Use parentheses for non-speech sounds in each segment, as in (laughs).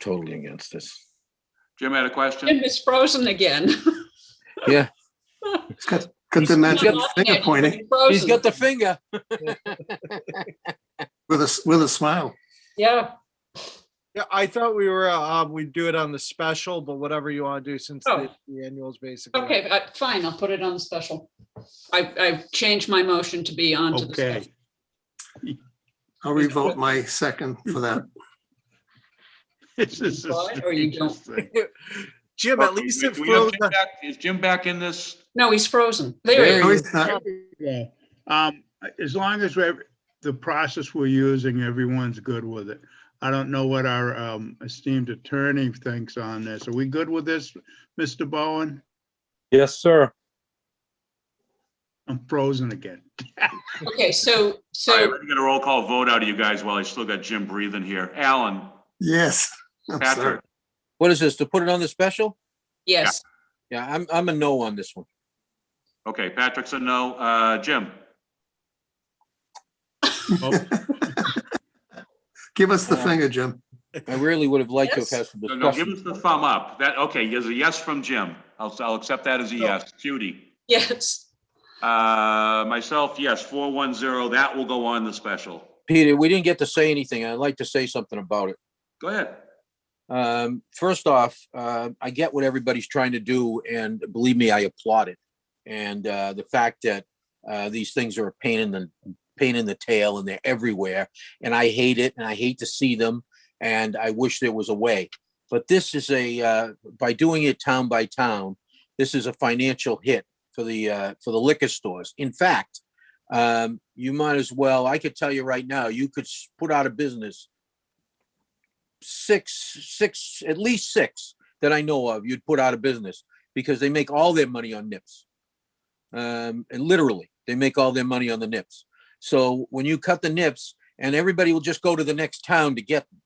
totally against this. Jim had a question? Jim is frozen again. He's got, got the magic finger pointing He's Frozen. got the finger. with a, s- with a smile. Yeah, Yeah, I thought we were, um, we'd do it on the special, but whatever you want to do since Oh. the the annuals basically. okay, uh, fine, I'll put it on the special. I, I've changed my motion to be on to the Okay. special. I'll revoke my second for (laughs) that. (laughs) This is the Right, or you don't. strangest thing. Jim, at least it We- we have flows. Jim back- Is Jim back in this? No, he's frozen. There he There is. No, he's not. Yeah. Um, as long as we're, the process we're using, everyone's good with it. I don't know what our um, esteemed attorney thinks on this. Are we good with this, Mr. Bowen? Yes, sir. I'm (laughs) frozen again. Okay, so, All right, so we're gonna get a roll call vote out of you guys while I still got Jim breathing here. Alan, Yes. (laughs) I'm sorry. Patrick, What is this, to put it on the special? Yes, Yeah, I'm, I'm a no on this one. okay, Patrick's a no. Uh, Jim? Oh, Give us the Yeah. finger, Jim. I really would have liked to have had some No, no, give discussion. us the thumb up. That, okay, there's a yes from Jim. I'll, I'll accept that as a yes. Judy? yes, Uh, myself, yes, four one zero. That will go on the special. Peter, we didn't get to say anything. I'd like to say something about it. Go ahead. Um, first off, uh, I get what everybody's trying to do and believe me, I applaud it. And, uh, the fact that, uh, these things are a pain in the, pain in the tail and they're everywhere. And I hate it and I hate to see them and I wish there was a way. But this is a, uh, by doing it town by town, this is a financial hit for the, uh, for the liquor stores. In fact, um, you might as well, I could tell you right now, you could s- put out of business six, six, at least six that I know of, you'd put out of business because they make all their money on nips. Um, and literally, they make all their money on the nips. So when you cut the nips, and everybody will just go to the next town to get them,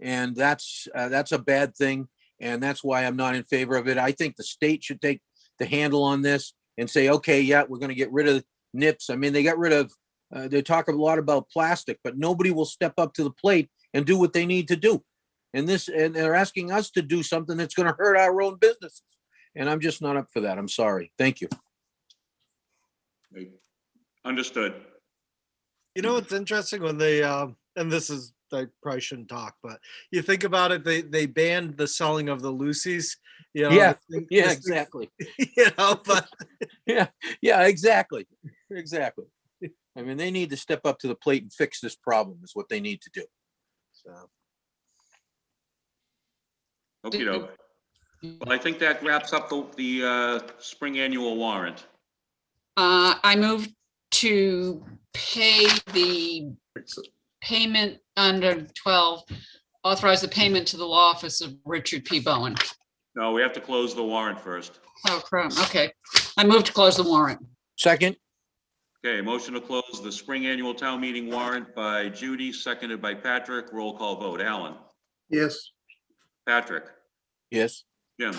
and that's uh, that's a bad thing, and that's why I'm not in favor of it. I think the state should take the handle on this and say, okay, yeah, we're going to get rid of nips. I mean, they got rid of. Uh, they talk a lot about plastic, but nobody will step up to the plate and do what they need to do. And this, and they're asking us to do something that's gonna hurt our own businesses. And I'm just not up for that. I'm sorry. Thank you. Understood. You know, what's interesting when they, um, and this is, I probably shouldn't talk, but you think about it, they, they banned the selling of the Lucy's. you know, Yeah, this thing- Yeah, this thing- exactly. (laughs) You know, but (laughs) Yeah, exactly. Exactly. I mean, they need to step up to the plate and fix this problem is what they need to do. So, Okay, doke. Well, I think that wraps up the, the, uh, spring annual warrant. uh, I move to pay the payment under twelve, authorize the payment to the law office of Richard P. Bowen. No, we have to close the warrant first. Oh, crap, okay. I move to close the warrant. second, Okay, motion to close the spring annual town meeting warrant by Judy, seconded by Patrick. Roll call vote. Alan? Yes. Patrick? yes. Jim?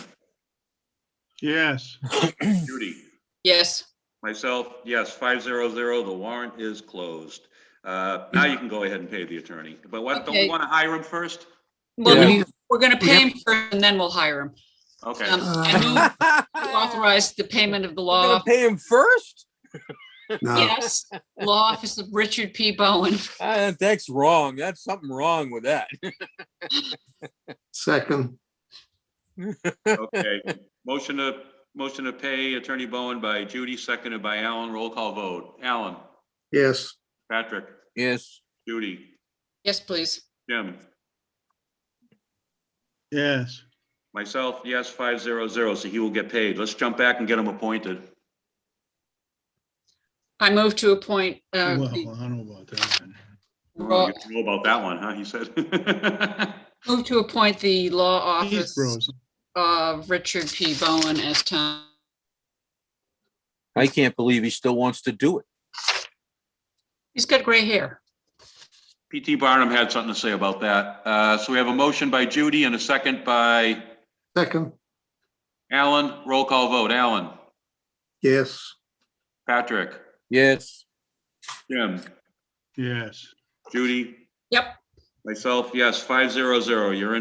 Yes. Judy? Yes, Myself, yes, five zero zero. The warrant is closed. Uh, now you can go ahead and pay the attorney. But what, don't we Okay. want to hire him first? well, Yeah. no, we're gonna pay him first and then we'll hire him. Okay, Um, (laughs) (laughs) I move We're to Authorize the payment of the law gonna pay him first? No, Yes, Law Office of Richard P. Bowen. Uh, that's wrong. That's something wrong with that. second. okay. Motion to, motion to pay Attorney Bowen by Judy, seconded by Alan. Roll call vote. Alan? Yes. Patrick? Yes, Judy? Yes, please. Jim? Yes. Myself, yes, five zero zero. So he will get paid. Let's jump back and get him appointed. I move to appoint, uh, Well, I the don't know about that. one. Oh, Raw- you don't know about that one, huh? He said. (laughs) move to appoint the law He's office frozen. of Richard P. Bowen as town. I can't believe he still wants to do it. He's got gray hair. PT Barnum had something to say about that. Uh, so we have a motion by Judy and a second by Second. Alan. Roll call vote. Alan, Yes. Patrick, Yes, Jim, Yes. Judy. Yep. Myself, yes, five zero zero. You're in